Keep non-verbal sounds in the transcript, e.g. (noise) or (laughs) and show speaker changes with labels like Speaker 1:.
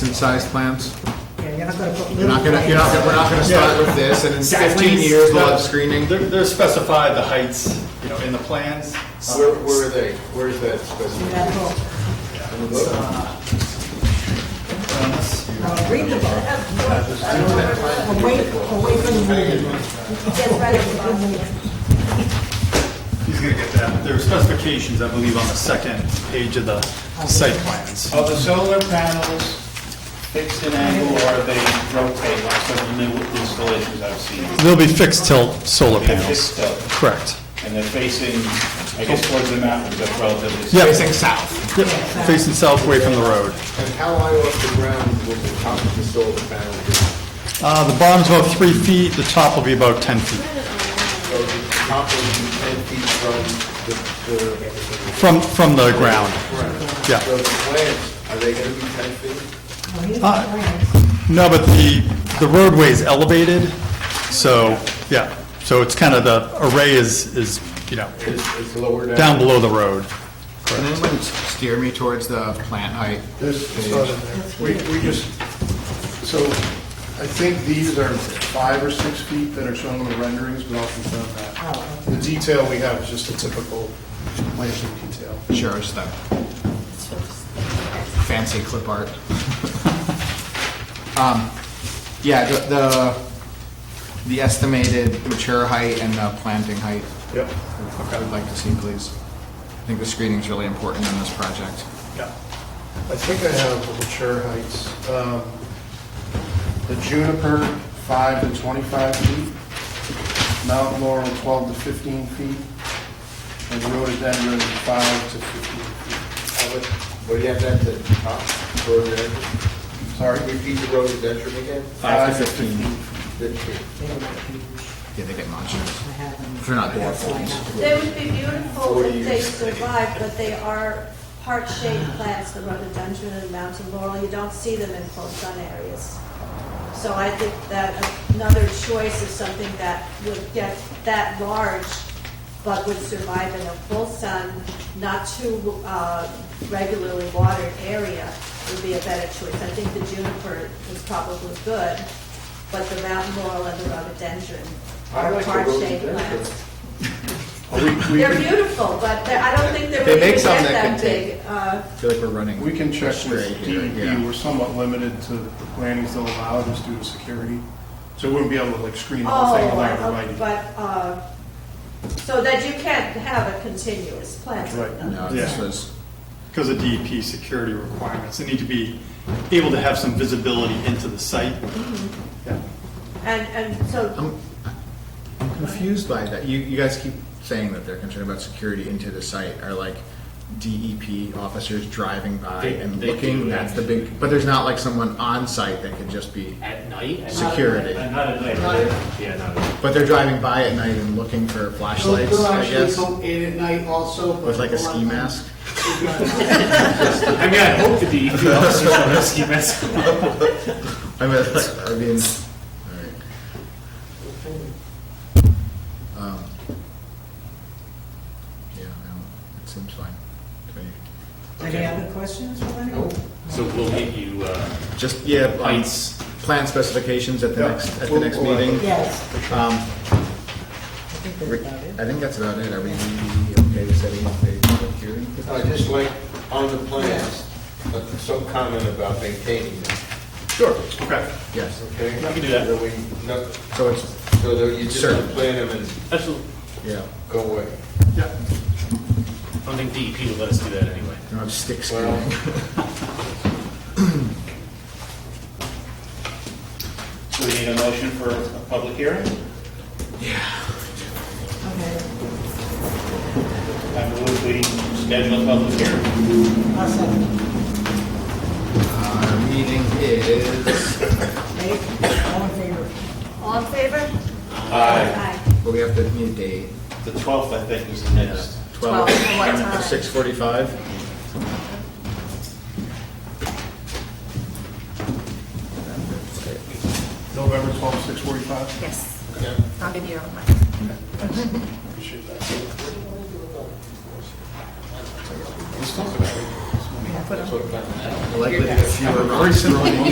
Speaker 1: decent-sized plans.
Speaker 2: Yeah, you're not gonna put
Speaker 1: You're
Speaker 2: little
Speaker 1: not gonna, you're not, gonna- we're not gonna start with this, and in fifteen years, we'll have screening.
Speaker 3: They're, they're specified the heights, you know, in the plans.
Speaker 4: Uh, Where, where are they? Where's that
Speaker 2: in
Speaker 4: specimen?
Speaker 2: that book.
Speaker 4: In the book?
Speaker 2: Uh, Read the book. Or wait, or wait for the movie.
Speaker 5: Yes, right, it's good news.
Speaker 3: He's gonna get that. There are specifications, I believe, on the second page of the site plans.
Speaker 6: Are the solar panels fixed in angle or are they rotate like some of the new installations I've seen?
Speaker 3: They'll be fixed tilt solar
Speaker 6: They're fixed
Speaker 3: panels.
Speaker 6: tilt,
Speaker 3: Correct.
Speaker 6: And they're facing, I guess towards the mountains, that's relatively.
Speaker 3: Yeah.
Speaker 1: Facing south.
Speaker 3: Yep, facing south away from the road.
Speaker 4: And how high off the ground will the top of the solar panel be?
Speaker 3: Uh, the bottom's about three feet, the top will be about 10 feet.
Speaker 4: So the top will be ten feet from the, the,
Speaker 3: From, from the ground. Yeah.
Speaker 4: so the plants, are they gonna be ten feet?
Speaker 2: No, he's
Speaker 3: Uh,
Speaker 2: not friends.
Speaker 3: No, but the, the roadway is elevated, so, yeah, so it's kind of the array is, is, you know,
Speaker 4: It's, it's lower down?
Speaker 3: down below the road.
Speaker 1: Can anyone steer me towards the plant height?
Speaker 7: This is not in there. We, we just, so I think these are five or six feet that are shown on the renderings, but I'll confirm that. The detail we have is just a typical landscape detail.
Speaker 1: Sure, just that fancy clip art. (laughs) Um, Yeah, the- the, the estimated mature height and the planting height,
Speaker 7: Yep.
Speaker 1: I would like to see, please. I think the screening's really important in this project.
Speaker 7: Yeah. I think I have the mature heights. Um, The juniper, five to 25 feet. Mountain laurel, 12 to 15 feet. And rhododendron, five to 15 feet.
Speaker 4: How much, what do you have that, the top rhododendron?
Speaker 7: Sorry?
Speaker 4: Repeat the rhododendron again?
Speaker 7: Five to 15.
Speaker 4: This year.
Speaker 2: They don't like you.
Speaker 1: Yeah, they get monsters.
Speaker 2: I have them.
Speaker 1: They're not
Speaker 2: That's why I have them.
Speaker 5: They would be beautiful if they survived, but they are heart-shaped plants, the rhododendron and mountain laurel. You don't see them in full sun areas. So I think that another choice is something that would get that large, but would survive in a full sun, not too uh, regularly watered area would be a better choice. I think the juniper is probably good, but the mountain laurel and the rhododendron
Speaker 4: I
Speaker 5: are
Speaker 4: like the
Speaker 5: heart-shaped
Speaker 4: rhododendron.
Speaker 5: plants.
Speaker 7: We- we-
Speaker 5: They're beautiful, but they're- I don't think they're
Speaker 1: They
Speaker 5: really
Speaker 1: make
Speaker 5: get
Speaker 1: some that
Speaker 5: that
Speaker 1: can take-
Speaker 5: big. Uh,
Speaker 1: I feel like we're running.
Speaker 7: We can check
Speaker 1: Straight
Speaker 7: with
Speaker 1: here,
Speaker 7: DEP,
Speaker 1: yeah.
Speaker 7: we're somewhat limited to the plantings they'll allow just due to security. So we wouldn't be able to like screen the whole thing
Speaker 5: Oh,
Speaker 7: without
Speaker 5: I-
Speaker 7: writing.
Speaker 5: but, uh, so that you can't have a continuous plant.
Speaker 1: No,
Speaker 7: Right,
Speaker 1: this
Speaker 7: yeah.
Speaker 1: was,
Speaker 3: Because of DEP security requirements, they need to be able to have some visibility into the site.
Speaker 7: Yeah.
Speaker 5: And, and so,
Speaker 1: I'm, I'm confused by that. You, you guys keep saying that they're concerned about security into the site. Are like DEP officers driving by
Speaker 8: They-
Speaker 1: and
Speaker 8: they
Speaker 1: looking?
Speaker 8: do,
Speaker 1: That's the
Speaker 8: yeah.
Speaker 1: big, but there's not like someone on site that could just be,
Speaker 8: At night? At
Speaker 1: Security.
Speaker 8: night. Uh, Not at night. Yeah, not at night.
Speaker 1: but they're driving by at night and looking for flashlights, I guess,
Speaker 9: in at night also. but-
Speaker 1: with like a ski mask.
Speaker 8: I mean, I hope the DEP officers don't have ski masks.
Speaker 1: I mean, (laughs) I mean, all right. Um, Yeah, no, it seems fine to me.
Speaker 2: Any other questions from anyone?
Speaker 8: So we'll get you, uh,
Speaker 1: Just, yeah, um,
Speaker 8: Heights.
Speaker 1: plan specifications at the
Speaker 7: Yeah.
Speaker 1: next, at the
Speaker 7: We'll-
Speaker 1: next
Speaker 7: we'll-
Speaker 1: meeting.
Speaker 2: Yes,
Speaker 1: Um,
Speaker 2: I think
Speaker 1: Rick,
Speaker 2: that's about it.
Speaker 1: I think that's about it. Are we okay with setting up a public hearing?
Speaker 4: I just like, on the plants, uh, some comment about maintaining them,
Speaker 1: Sure.
Speaker 3: Okay.
Speaker 1: Yes,
Speaker 4: okay?
Speaker 3: We can do that.
Speaker 4: So we, no,
Speaker 1: so it's,
Speaker 4: so that you just
Speaker 1: Sure.
Speaker 4: don't plant them and
Speaker 8: absolutely,
Speaker 1: yeah,
Speaker 4: go away.
Speaker 3: Yeah.
Speaker 8: I don't think DEP would let us do that anyway.
Speaker 1: you don't have stick
Speaker 4: Well-
Speaker 1: screwing.
Speaker 6: So we need a motion for a public hearing?
Speaker 2: Okay,
Speaker 6: I move we schedule a public hearing.
Speaker 2: I'll second.
Speaker 6: uh,
Speaker 1: (laughs) Our meeting is,
Speaker 2: Dave, all in favor?
Speaker 5: all in favor? Aye.
Speaker 1: well, we have to need a date.
Speaker 6: The 12th, I think, is the next.
Speaker 1: Twelve,
Speaker 5: Twelve, what time?
Speaker 1: six forty-five?
Speaker 7: November 12th, 6:45.
Speaker 10: Yes,
Speaker 4: Yeah.
Speaker 10: I'll be here on my.
Speaker 7: Appreciate that. Let's talk about it.
Speaker 2: put them.
Speaker 4: Sort of, uh,
Speaker 1: likely to get fewer rocks thrown in.